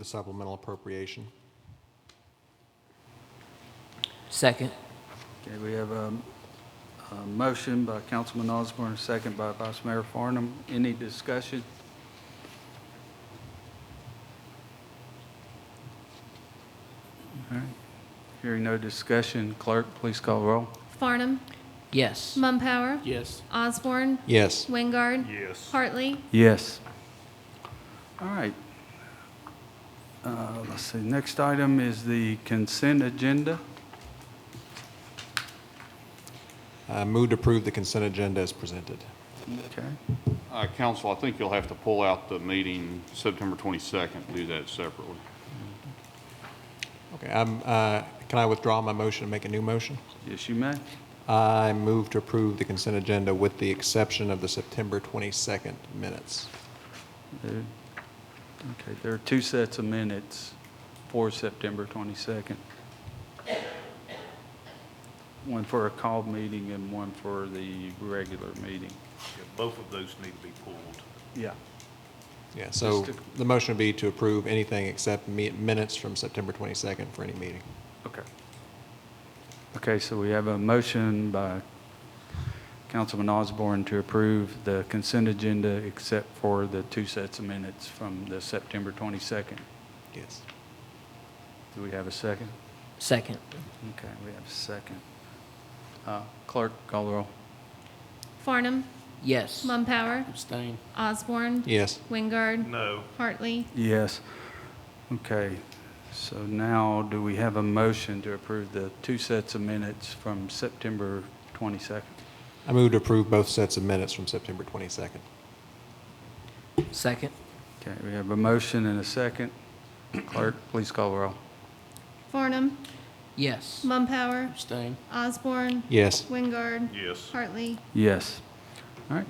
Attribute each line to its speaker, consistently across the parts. Speaker 1: the supplemental appropriation.
Speaker 2: Second.
Speaker 3: Okay, we have a, a motion by Councilman Osborne, a second by Vice Mayor Farnum. Any discussion? All right. Hearing no discussion, clerk, please call roll.
Speaker 4: Farnum.
Speaker 2: Yes.
Speaker 4: Mumpower.
Speaker 5: Yes.
Speaker 4: Osborne.
Speaker 1: Yes.
Speaker 4: Wingard. Yes. Hartley.
Speaker 3: Yes. All right. Uh, Let's see, next item is the consent agenda.
Speaker 1: Uh, Move to approve the consent agenda as presented.
Speaker 3: Okay.
Speaker 6: Uh, Council, I think you'll have to pull out the meeting September 22nd, do that separately.
Speaker 1: Okay, I'm, uh, can I withdraw my motion and make a new motion?
Speaker 3: Yes, you may.
Speaker 1: I move to approve the consent agenda with the exception of the September 22nd minutes.
Speaker 3: There- Okay, there are two sets of minutes for September 22nd. One for a called meeting and one for the regular meeting.
Speaker 7: Yeah, Both of those need to be pulled.
Speaker 3: Yeah.
Speaker 1: Yeah, so
Speaker 3: Just
Speaker 1: the motion would be to approve anything except me- minutes from September 22nd for any meeting.
Speaker 3: Okay. Okay, so we have a motion by Councilman Osborne to approve the consent agenda except for the two sets of minutes from the September 22nd.
Speaker 1: Yes.
Speaker 3: Do we have a second?
Speaker 2: Second.
Speaker 3: Okay, we have a second. Uh, Clerk, call the roll.
Speaker 4: Farnum.
Speaker 2: Yes.
Speaker 4: Mumpower.
Speaker 5: Abstain.
Speaker 4: Osborne.
Speaker 1: Yes.
Speaker 4: Wingard.
Speaker 7: No,
Speaker 4: Hartley.
Speaker 3: Yes. Okay, so now do we have a motion to approve the two sets of minutes from September 22nd?
Speaker 1: I move to approve both sets of minutes from September 22nd.
Speaker 2: Second.
Speaker 3: Okay, we have a motion and a second. Clerk, please call the roll.
Speaker 4: Farnum.
Speaker 2: Yes.
Speaker 4: Mumpower.
Speaker 5: Abstain.
Speaker 4: Osborne.
Speaker 1: Yes.
Speaker 4: Wingard.
Speaker 7: yes.
Speaker 4: Hartley.
Speaker 3: Yes. All right.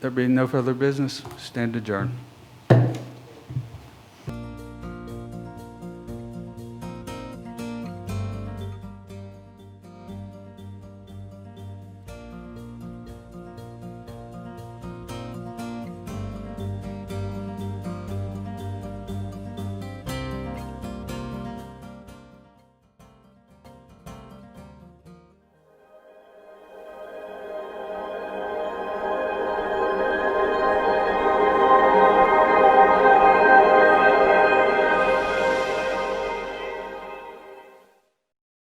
Speaker 3: There being no further business, stand adjourned.